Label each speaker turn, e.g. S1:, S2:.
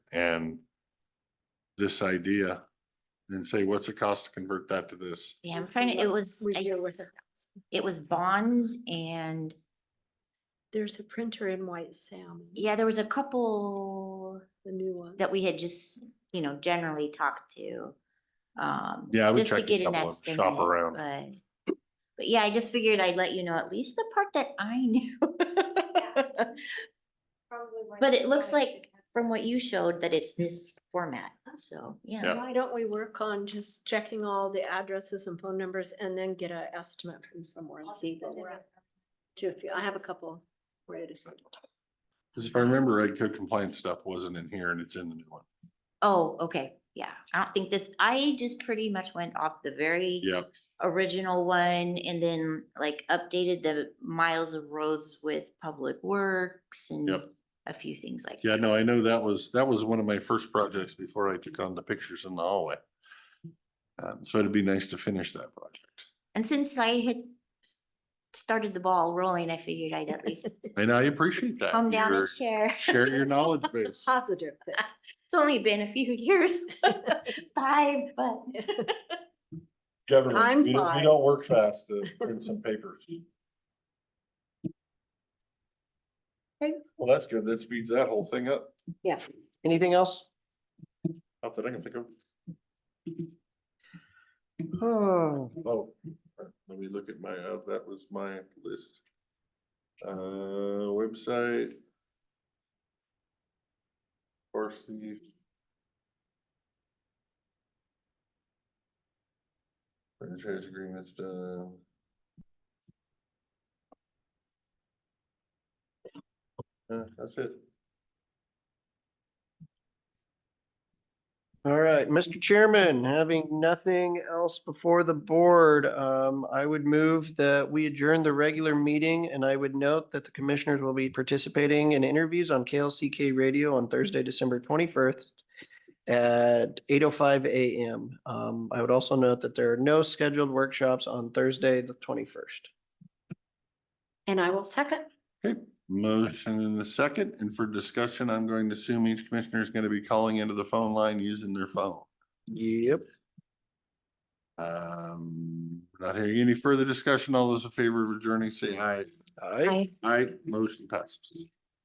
S1: and this idea and say, what's the cost to convert that to this?
S2: Yeah, I'm
S3: Which
S2: trying
S3: we
S2: to, it
S3: love-
S2: was,
S3: We
S2: I-
S3: deal with it.
S2: it was bonds and,
S3: There's a printer in White Salmon,
S2: yeah, there was a couple
S3: the new one.
S2: that we had just, you know, generally talked to. Um.
S1: Yeah, I would
S2: just to
S1: check a
S2: get an
S1: couple of- shop
S2: estimate,
S1: around.
S2: But but yeah, I just figured I'd let you know at least the part that I knew. But it looks like from what you showed that it's this format, so, yeah.
S3: Why don't we work on just checking all the addresses and phone numbers and then get an estimate from somewhere and see what we're at? To a few, I have a couple. ready to send.
S1: Cause if I remember right, code compliance stuff wasn't in here and it's in the new one.
S2: Oh, okay, yeah. I don't think this, I just pretty much went off the very
S1: Yeah,
S2: original one and then like updated the miles of roads with Public Works and
S1: Yep.
S2: a few things like.
S1: yeah, no, I know that was, that was one of my first projects before I took on the pictures in the hallway. Um, so it'd be nice to finish that project.
S2: And since I had s- started the ball rolling, I figured I'd at least
S1: And I appreciate that.
S2: calm down
S1: Your-
S2: and share.
S1: Share your knowledge base.
S3: Positive thing.
S2: It's only been a few years, five, but
S1: Government,
S3: I'm
S1: we don't, we
S3: fine.
S1: don't work fast to print some papers.
S2: Okay.
S1: Well, that's good. That speeds that whole thing up.
S4: Anything else?
S1: Not that I can think of.
S4: Oh,
S1: Oh, let me look at my, uh, that was my list. Uh, website. Of course, the. Franchise agreements, uh. Uh, that's it.
S4: all right, Mr. Chairman, having nothing else before the board, um, I would move that we adjourn the regular meeting and I would note that the commissioners will be participating in interviews on KLCK radio on Thursday, December twenty-first at eight oh five AM. Um, I would also note that there are no scheduled workshops on Thursday, the twenty-first.
S3: And I will second.
S1: Okay, motion in the second, and for discussion, I'm going to assume each commissioner is gonna be calling into the phone line using their phone.
S4: Yep.
S1: Um, not hearing any further discussion. All those in favor of adjourning, say aye.
S4: All right.
S1: Aye, motion passes.